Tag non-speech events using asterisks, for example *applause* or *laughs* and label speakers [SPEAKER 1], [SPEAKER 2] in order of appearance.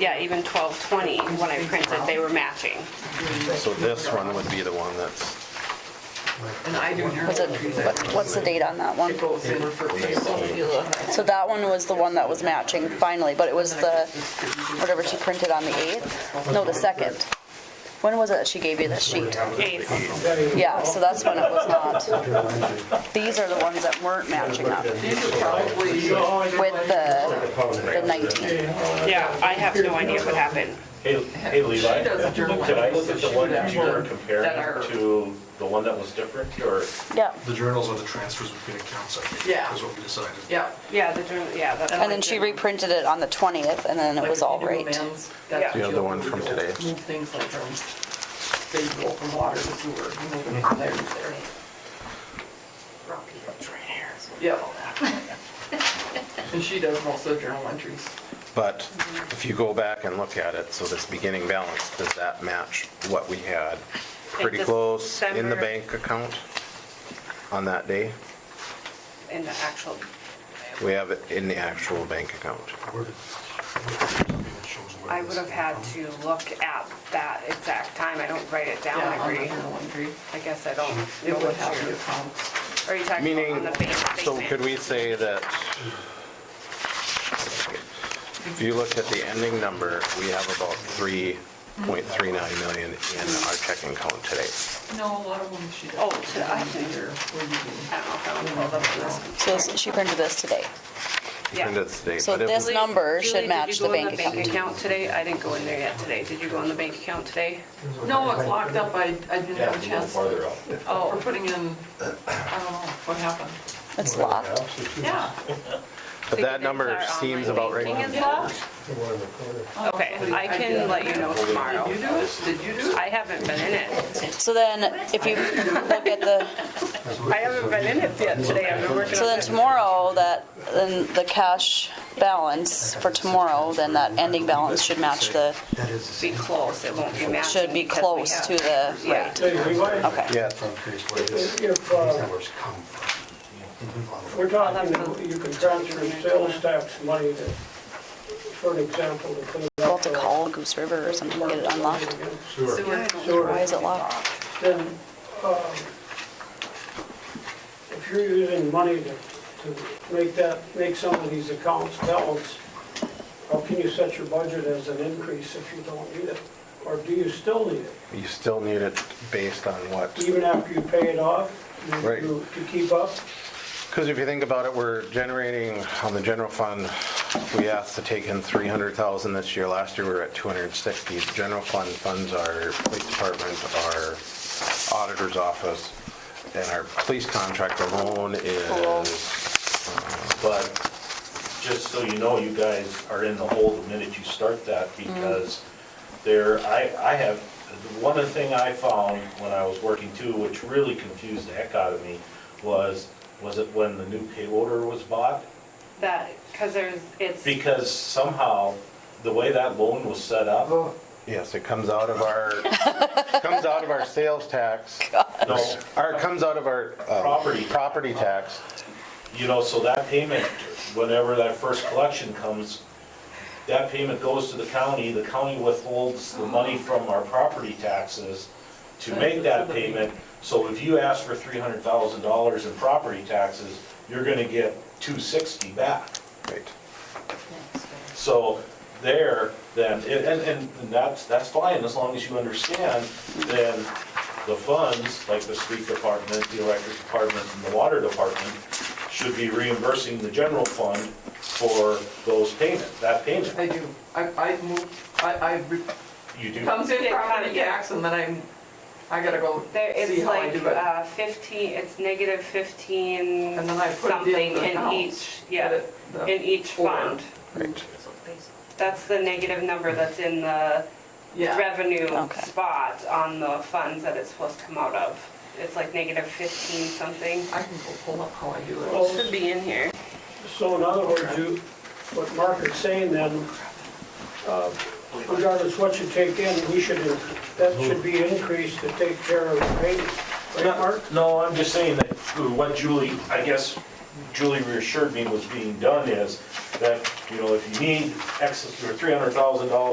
[SPEAKER 1] Yeah, even 1220, when I printed, they were matching.
[SPEAKER 2] So this one would be the one that's,
[SPEAKER 3] And I do your.
[SPEAKER 4] What's it, what- what's the date on that one?
[SPEAKER 3] It goes in for April.
[SPEAKER 4] So that one was the one that was matching finally, but it was the, whatever she printed on the 8th? No, the 2nd. When was it that she gave you that sheet?
[SPEAKER 1] Eighth.
[SPEAKER 4] Yeah, so that's when it was not. These are the ones that weren't matching up
[SPEAKER 3] These are probably,
[SPEAKER 4] with the, the 19th.
[SPEAKER 1] Yeah, I have no idea what happened.
[SPEAKER 5] Hey, hey Levi,
[SPEAKER 3] She does a journal.
[SPEAKER 5] did I look at the one that you were
[SPEAKER 3] That are-
[SPEAKER 5] comparing to the one that was different, or?
[SPEAKER 4] Yeah,
[SPEAKER 6] The journals are the transfers between accounts, I think.
[SPEAKER 3] Yeah.
[SPEAKER 6] Is what we decided.
[SPEAKER 3] yeah.
[SPEAKER 1] Yeah, the, journal- yeah. that's
[SPEAKER 4] and then she
[SPEAKER 1] what I did.
[SPEAKER 4] reprinted it on the 20th and then it was all
[SPEAKER 3] Like if you do
[SPEAKER 4] right.
[SPEAKER 3] amends, that's
[SPEAKER 1] Yeah.
[SPEAKER 3] what
[SPEAKER 2] The
[SPEAKER 3] you'll
[SPEAKER 2] other one
[SPEAKER 3] do.
[SPEAKER 2] from today.
[SPEAKER 3] Move things like from, say, you go from water to sewer, you move it from there to there. Yeah. And she does most of the journal entries.
[SPEAKER 2] but if you go back and look at it, so this beginning balance, does that match what we had? Pretty close in the
[SPEAKER 1] December-
[SPEAKER 2] bank account on that day?
[SPEAKER 1] In the actual,
[SPEAKER 2] We have it in the actual bank account.
[SPEAKER 6] Where did- it shows where
[SPEAKER 1] I
[SPEAKER 6] this
[SPEAKER 1] would have
[SPEAKER 6] came
[SPEAKER 1] had
[SPEAKER 6] from.
[SPEAKER 1] to look at that exact time. I don't write it down,
[SPEAKER 3] Yeah,
[SPEAKER 1] I
[SPEAKER 3] on the
[SPEAKER 1] agree.
[SPEAKER 3] journal entry.
[SPEAKER 1] I guess I don't
[SPEAKER 3] It
[SPEAKER 1] know
[SPEAKER 3] would have
[SPEAKER 1] what
[SPEAKER 3] the
[SPEAKER 1] year.
[SPEAKER 3] accounts.
[SPEAKER 1] Are you talking about on
[SPEAKER 2] Meaning,
[SPEAKER 1] the bank
[SPEAKER 2] so
[SPEAKER 1] statement?
[SPEAKER 2] could we say that if you look at the ending number, we have about 3.39 million in our checking account today?
[SPEAKER 3] No, a lot of them she does.
[SPEAKER 1] Oh, to- I think-
[SPEAKER 3] Either, or you
[SPEAKER 1] I don't know if I want to hold up to this.
[SPEAKER 4] So this- she printed this today.
[SPEAKER 1] Yeah.
[SPEAKER 2] Printed today,
[SPEAKER 4] So
[SPEAKER 2] but it
[SPEAKER 4] this
[SPEAKER 2] was-
[SPEAKER 4] number should
[SPEAKER 1] Julie,
[SPEAKER 4] match the bank
[SPEAKER 1] Did you go in the bank
[SPEAKER 4] account.
[SPEAKER 1] account today? I didn't go in there yet today. Did you go in the bank account today?
[SPEAKER 3] do.
[SPEAKER 7] *laughs*
[SPEAKER 3] No, it's locked up, I, I didn't have a
[SPEAKER 5] it's little
[SPEAKER 3] chance.
[SPEAKER 5] Farther up.
[SPEAKER 3] Oh, we're putting in, I don't know, what happened?
[SPEAKER 4] It's locked.
[SPEAKER 3] Yeah.
[SPEAKER 2] But that number seems about right.
[SPEAKER 1] Banking is locked? Okay, I can let you know tomorrow.
[SPEAKER 3] Did you do it? Did you do it?
[SPEAKER 1] I haven't been in it.
[SPEAKER 4] So then if you look at the,
[SPEAKER 1] I haven't been in it yet today. I've been working
[SPEAKER 4] So
[SPEAKER 1] on
[SPEAKER 4] then
[SPEAKER 1] it.
[SPEAKER 4] tomorrow, that, then the cash balance for tomorrow, then that ending balance should match the,
[SPEAKER 7] That is the same.
[SPEAKER 1] Be close, it won't be matching.
[SPEAKER 4] should be
[SPEAKER 1] because we
[SPEAKER 4] close
[SPEAKER 1] have-
[SPEAKER 4] to the,
[SPEAKER 1] Yeah.
[SPEAKER 4] right,
[SPEAKER 7] Okay.
[SPEAKER 2] Yeah,
[SPEAKER 7] I'm curious where this, these
[SPEAKER 8] If, uh,
[SPEAKER 7] numbers come from.
[SPEAKER 8] we're talking, you can transfer sales tax money to, for an example, to clean
[SPEAKER 4] we'll
[SPEAKER 8] up.
[SPEAKER 4] have to call Goose River or something, get it unlocked.
[SPEAKER 1] Sewer.
[SPEAKER 4] Why is it locked?
[SPEAKER 8] Then, uh, if you're using money to, to make that, make some of these accounts balance, how can you set your budget as an increase if you don't need it? Or do you still need it?
[SPEAKER 2] you still need it based on what?
[SPEAKER 8] Even after you pay it off, you-
[SPEAKER 2] Right.
[SPEAKER 8] you- to keep up?
[SPEAKER 2] Because if you think about it, we're generating on the general fund, we asked to take in 300,000 this year. Last year, we were at 260. General fund funds our police department, our auditor's office, and our police contract alone is,
[SPEAKER 5] But just so you know, you guys are in the hole the minute you start that
[SPEAKER 3] Mm.
[SPEAKER 5] because there, I, I have, one of the thing I found when I was working too, which really confused the heck out of me, was, was it when the new pay order was bought?
[SPEAKER 1] That, because there's, it's,
[SPEAKER 5] Because somehow, the way that loan was set up,
[SPEAKER 2] yes, it comes out of our, comes out of our sales tax,
[SPEAKER 5] no,
[SPEAKER 2] or it comes out of our uh,
[SPEAKER 5] Property.
[SPEAKER 2] property tax.
[SPEAKER 5] You know, so that payment, whenever that first collection comes, that payment goes to the county, the county withholds the money from our property taxes to make that payment. So if you ask for three hundred thousand dollars in property taxes, you're gonna get two sixty back.
[SPEAKER 2] Right.
[SPEAKER 5] So there, then, and, and, and that's, that's fine, as long as you understand, then the funds, like the street department, the electric department, and the water department, should be reimbursing the general fund for those payments, that
[SPEAKER 3] I
[SPEAKER 5] payment.
[SPEAKER 3] do. I, I move, I, I, re-
[SPEAKER 5] You do,
[SPEAKER 3] comes in
[SPEAKER 1] It kinda
[SPEAKER 3] property tax and then I'm, I gotta go
[SPEAKER 1] there,
[SPEAKER 3] see
[SPEAKER 1] it's
[SPEAKER 3] how I
[SPEAKER 1] like
[SPEAKER 3] do it.
[SPEAKER 1] uh, fifteen, it's negative fifteen
[SPEAKER 3] And then I put it
[SPEAKER 1] something
[SPEAKER 3] in the
[SPEAKER 1] in each,
[SPEAKER 3] accounts.
[SPEAKER 1] yeah,
[SPEAKER 3] Edit the
[SPEAKER 1] in each
[SPEAKER 3] uh, four.
[SPEAKER 1] fund.
[SPEAKER 2] Right.
[SPEAKER 1] That's the negative number that's in the
[SPEAKER 3] Yeah,
[SPEAKER 1] revenue
[SPEAKER 4] Okay.
[SPEAKER 1] spot on the funds that it's supposed to come out of. It's like negative fifteen something.
[SPEAKER 3] I can go pull up how I do it.
[SPEAKER 8] Well,
[SPEAKER 1] Should be in here.
[SPEAKER 8] So in other words, you, what Mark is saying then, uh, regardless what you take in, we should, that should be increased to take care of the payment, right, Mark?
[SPEAKER 5] no, I'm just saying that what Julie, I guess Julie reassured me was being done is that, you know, if you need X, or three hundred thousand dollars